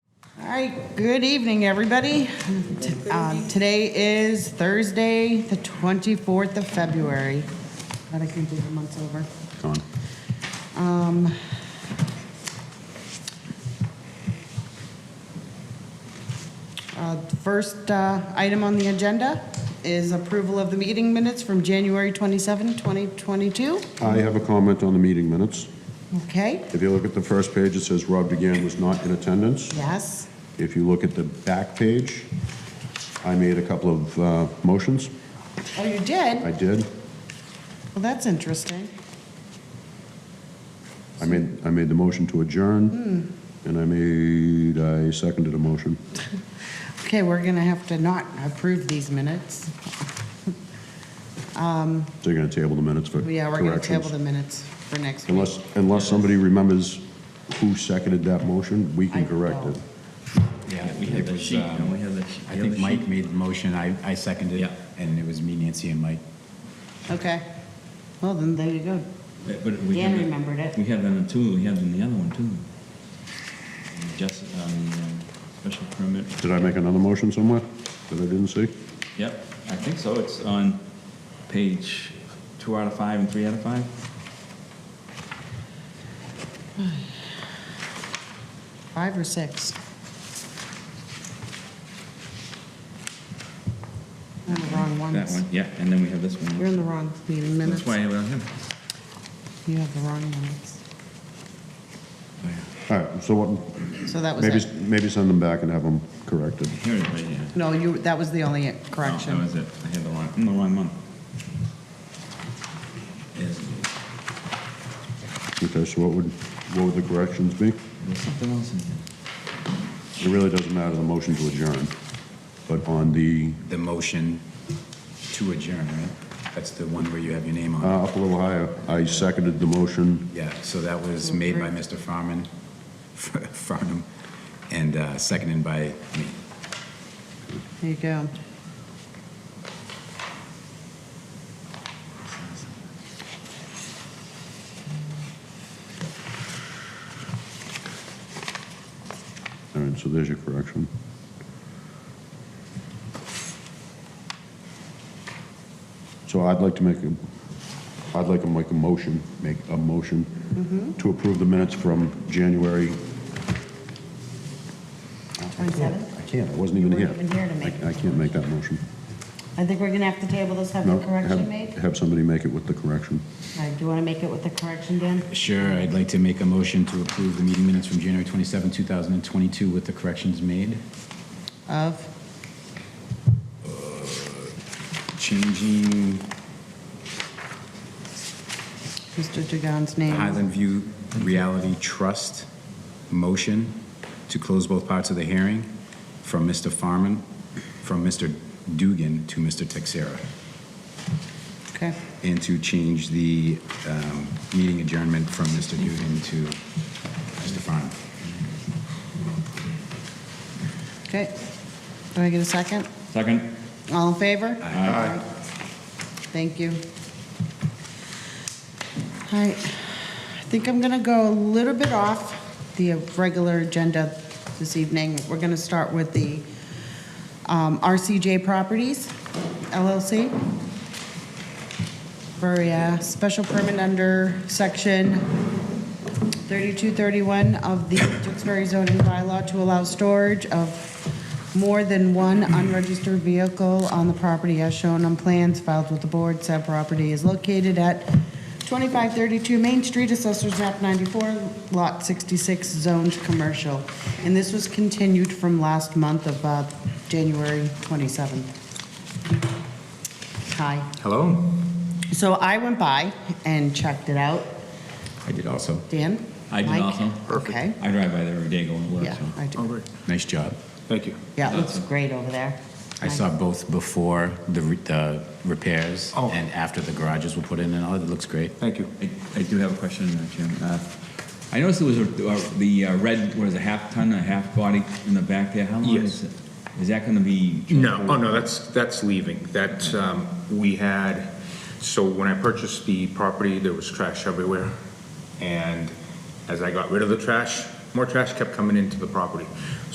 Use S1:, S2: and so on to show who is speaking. S1: right, good evening, everybody. T- um, Today is Thursday, the 24th of February. Glad I can do the months over.
S2: Go on.
S1: Um, uh, the First uh, item on the agenda is approval of the meeting minutes from January 27, 2022.
S2: I have a comment on the meeting minutes.
S1: Okay,
S2: If you look at the first page, it says Rob DeGan was not in attendance.
S1: yes,
S2: If you look at the back page, I made a couple of uh, motions.
S1: oh, you did?
S2: I did.
S1: Well, that's interesting.
S2: I made, I made the motion to adjourn,
S1: Hmm.
S2: and I made, I seconded a motion.
S1: Okay, we're going to have to not approve these minutes.
S2: So you're going to table the minutes for
S1: Yeah, we're going to table
S2: corrections.
S1: the minutes for next week.
S2: Unless, unless somebody remembers who seconded that motion, we can
S1: I
S2: correct
S1: don't.
S2: it.
S3: Yeah, we had
S4: It was,
S3: this, um,
S4: um, I
S3: I think Mike made the motion, I, I seconded,
S4: Yeah.
S3: and it was me, Nancy, and Mike.
S1: Okay. Well, then there you go.
S4: But we
S1: Dan
S4: had that-
S1: remembered it.
S4: We had that on two, we had it in the other one too. Just on the um, special permit.
S2: Did I make another motion somewhere that I didn't see?
S4: Yep, I think so. It's on page two out of five and three out of five.
S1: Five or six? I'm on the wrong
S4: That
S1: ones.
S4: one, yeah, and then we have this
S1: You're
S4: one.
S1: in the wrong meeting minutes.
S4: That's why I don't have.
S1: You have the wrong minutes.
S2: All right, so what,
S1: So that was
S2: Maybe,
S1: it.
S2: maybe send them back and have them corrected.
S4: Here it is, right here.
S1: No, you, that was the only
S4: No, that
S1: correction.
S4: was it. I had the wrong, I'm the wrong month. Is-
S2: Okay, so what would, what would the corrections be?
S4: There's something else in here.
S2: It really doesn't matter, the motion to adjourn, but on the,
S3: The motion to adjourn, right? That's the one where you have your name on.
S2: uh, up a little higher, I seconded the motion.
S3: Yeah, so that was made by Mr. Farman, Farnum, and uh, seconded by me.
S1: There you go.
S2: All right, so there's your correction. So I'd like to make a, I'd like to make a motion, make a
S1: Mm-hmm.
S2: motion to approve the minutes from January.
S1: Twenty-seven?
S2: I can't, I wasn't even
S1: You
S2: here.
S1: weren't even here to make
S2: I- I can't make that motion.
S1: I think we're going to have to table this, have
S2: No, have- Have somebody make it with the correction.
S1: All right, do you want to make it with the correction, Dan?
S3: Sure, I'd like to make a motion to approve the meeting minutes from January 27, 2022 with the corrections made,
S1: Of?
S3: changing
S1: Mr. Dugan's name.
S3: Highland View Reality Trust motion to close both parts of the hearing from Mr. Farman, from Mr. Dugan to Mr. Texera,
S1: Okay,
S3: and to change the um, meeting adjournment from Mr. Dugan to Mr. Farman.
S1: okay. Do I get a second?
S4: Second?
S1: All in favor?
S4: Aye.
S1: Thank you. All right, I think I'm going to go a little bit off the regular agenda this evening. We're going to start with the um, RCJ Properties LLC for a uh, special permit under section 3231 of the Tewksbury zoning bylaw to allow storage of more than one unregistered vehicle on the property as shown on plans filed with the board. Said property is located at 2532 Main Street, Assessors Map 94, Lot 66, Zoned Commercial. And this was continued from last month of uh, January 27th. Hi.
S3: Hello?
S1: So I went by and checked it out.
S3: I did also.
S1: Dan?
S4: I did
S1: Mike?
S4: also.
S1: Okay.
S4: I drive by there every day going to work,
S1: Yeah,
S4: so.
S1: I do.
S3: Nice job. Thank you.
S1: Yeah, it looks great over there.
S3: I saw both before the re- the repairs and after the garages were put in and all, it looks great.
S4: Thank you. I I do have a question, uh, Jim. Uh, I noticed there was a- uh, the uh, red, what is it, half ton, a half body in the back there? How long
S5: Yes.
S4: is it? Is that going to be?
S5: No, oh, no, that's, that's leaving. That, um, we had, so when I purchased the property, there was trash everywhere. And as I got rid of the trash, more trash kept coming into the property.